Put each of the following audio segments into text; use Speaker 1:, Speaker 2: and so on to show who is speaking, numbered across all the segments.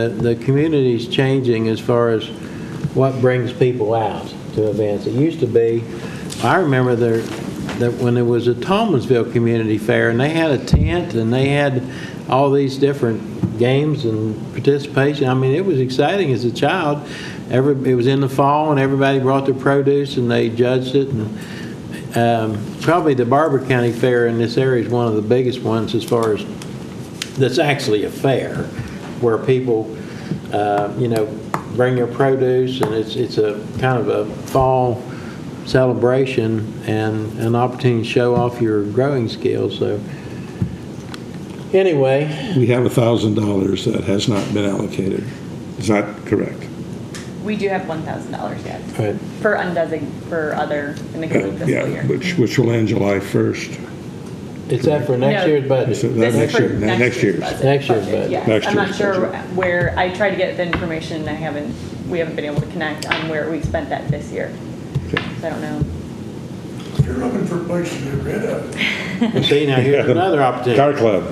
Speaker 1: The- The community's changing as far as what brings people out to events. It used to be, I remember there, that when it was a Thomasville Community Fair, and they had a tent, and they had all these different games and participation. I mean, it was exciting as a child. Every, it was in the fall, and everybody brought their produce, and they judged it, and um, probably the Barber County Fair in this area is one of the biggest ones as far as that's actually a fair, where people, uh, you know, bring their produce, and it's, it's a kind of a fall celebration and an opportunity to show off your growing skills, so. Anyway,
Speaker 2: We have $1,000 that has not been allocated. Is that correct?
Speaker 3: We do have one thousand dollars yet
Speaker 1: right,
Speaker 3: for undesignated, for other in the coming fiscal
Speaker 2: Yeah,
Speaker 3: year.
Speaker 2: which, which will end July 1st.
Speaker 1: it's that for next
Speaker 3: No.
Speaker 1: year's
Speaker 2: Is it
Speaker 1: budget.
Speaker 2: that
Speaker 3: This is
Speaker 2: next
Speaker 3: for
Speaker 2: year? Next year's.
Speaker 3: budget-
Speaker 1: Next year's budget.
Speaker 3: Yes,
Speaker 2: Next
Speaker 3: I'm not
Speaker 2: year's
Speaker 3: sure
Speaker 2: budget.
Speaker 3: where, I tried to get the information, I haven't, we haven't been able to connect on where we spent that this year.
Speaker 2: Okay.
Speaker 3: So I don't know.
Speaker 4: You're looking for a place to get rid of.
Speaker 1: See, now here's another
Speaker 2: Car
Speaker 1: opportunity.
Speaker 2: Club.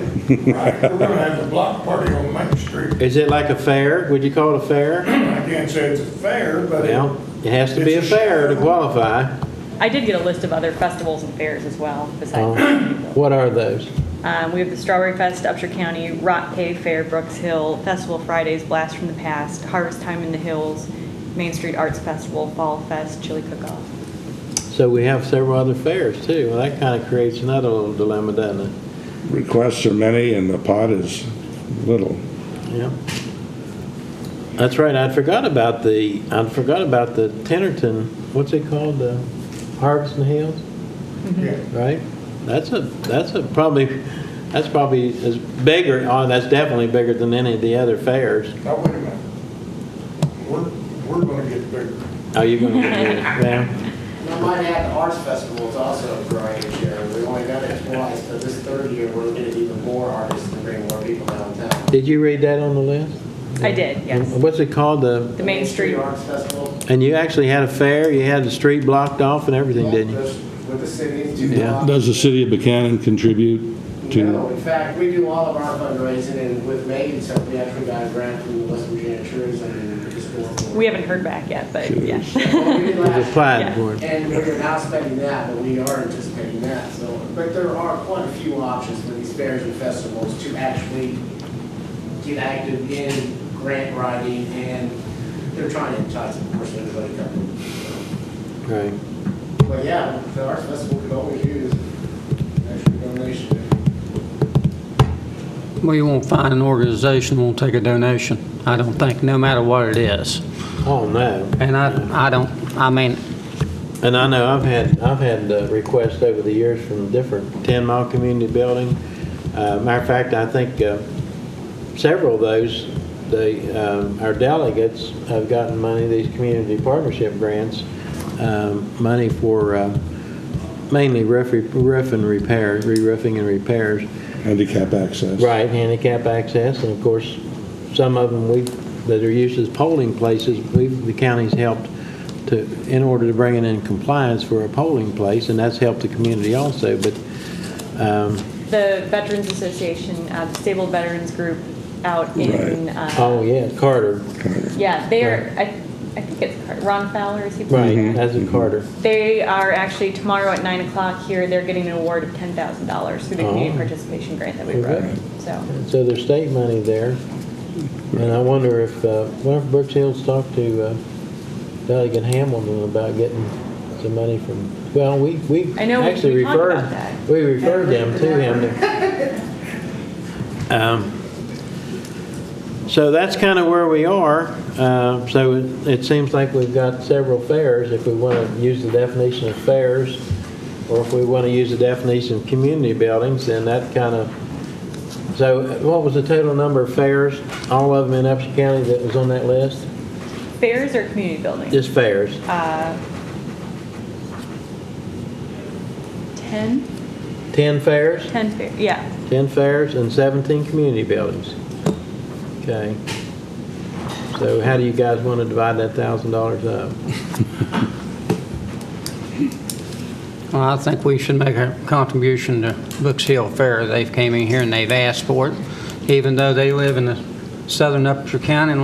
Speaker 4: Right, We're gonna have a block party on Main Street.
Speaker 1: Is it like a fair? Would you call it a fair?
Speaker 4: I can't say it's a fair, but it-
Speaker 1: Well, it has to be a fair to qualify.
Speaker 3: I did get a list of other festivals and fairs as well besides.
Speaker 1: Um, What are those?
Speaker 3: Um, we have the Strawberry Fest, Upshur County, Rock Cave Fair, Brooks Hill, Festival Fridays, Blast from the Past, Harvest Time in the Hills, Main Street Arts Festival, Fall Fest, Chili Cook-Off.
Speaker 1: So we have several other fairs too. Well, that kind of creates another little dilemma, doesn't it?
Speaker 2: Requests are many and the pot is little.
Speaker 1: Yeah. That's right. I forgot about the, I forgot about the Tennerton, what's it called? The Harvest and Hills,
Speaker 4: yeah.
Speaker 1: right? That's a, that's a probably, that's probably as bigger, oh, that's definitely bigger than any of the other fairs.
Speaker 4: Now, wait a minute. We're, we're gonna get bigger.
Speaker 1: Oh, you're going to get, yeah.
Speaker 5: And I might add, the arts festival is also growing each year. We've only done it twice, but this third year, we're looking at even more artists and bring more people downtown.
Speaker 1: Did you read that on the list?
Speaker 3: I did, yes.
Speaker 1: What's it called? The,
Speaker 3: The Main Street,
Speaker 5: Arts Festival.
Speaker 1: and you actually had a fair, you had the street blocked off and everything, didn't you?
Speaker 5: Just With the city. do
Speaker 1: Yeah.
Speaker 5: not-
Speaker 2: Does the city of Buchanan contribute
Speaker 5: No,
Speaker 2: to?
Speaker 5: in fact, we do all of our fundraising, and with Megan, so we actually got a grant from the West Virginia Tourism and Historical.
Speaker 3: we haven't heard back yet, but yeah.
Speaker 5: Well, we did
Speaker 1: You've
Speaker 5: last year.
Speaker 1: applied for it.
Speaker 5: And we're now spending that, but we are anticipating that, so, but there are quite a few options for these fairs and festivals to actually get active in grant writing, and they're trying to entice, of course, everybody coming.
Speaker 1: Right.
Speaker 5: So, But yeah, the arts festival could always use an extra donation.
Speaker 6: Well, you won't find an organization won't take a donation, I don't think, no matter what it is.
Speaker 1: Oh, no.
Speaker 6: And I, I don't, I mean,
Speaker 1: And I know I've had, I've had uh, requests over the years from different 10 mile community building. Uh, Matter of fact, I think uh, several of those, they, um, our delegates have gotten money, these community partnership grants, um, money for uh, mainly roof roof and repair, re-roofing and repairs.
Speaker 2: Handicap access.
Speaker 1: Right, handicap access, and of course, some of them we, that are used as polling places, we've, the county's helped to, in order to bring it in compliance for a polling place, and that's helped the community also, but, um,
Speaker 3: The Veterans Association, uh, the Stable Veterans Group out in,
Speaker 2: Right.
Speaker 1: oh,
Speaker 3: uh,
Speaker 1: yeah, Carter,
Speaker 3: yeah, they're, I, I think it's Car- Ron Fowler, is he?
Speaker 1: right, that's a Carter.
Speaker 3: They are actually tomorrow at nine o'clock here, they're getting an award of ten thousand dollars through the
Speaker 1: Oh.
Speaker 3: community participation grant that we wrote, so.
Speaker 1: So there's state money there, and I wonder if, uh, wonder if Brooks Hills talked to uh, Delegate Hamilton about getting some money from, well, we, we
Speaker 3: I know we-
Speaker 1: actually
Speaker 3: we talked about
Speaker 1: referred,
Speaker 3: that.
Speaker 1: we referred them to him. Um, So that's kind of where we are. Uh, So it- it seems like we've got several fairs, if we want to use the definition of fairs, or if we want to use the definition of community buildings, then that kind of, so what was the total number of fairs, all of them in Upshur County that was on that list?
Speaker 3: Fairs or community buildings?
Speaker 1: Just fairs.
Speaker 3: Ten?
Speaker 1: 10 fairs?
Speaker 3: Ten fair, yeah.
Speaker 1: 10 fairs and 17 community buildings. Okay. So how do you guys want to divide that $1,000 up?
Speaker 6: well, I think we should make a contribution to Brooks Hill Fair. They've came in here and they've asked for it, even though they live in the Southern Upshur County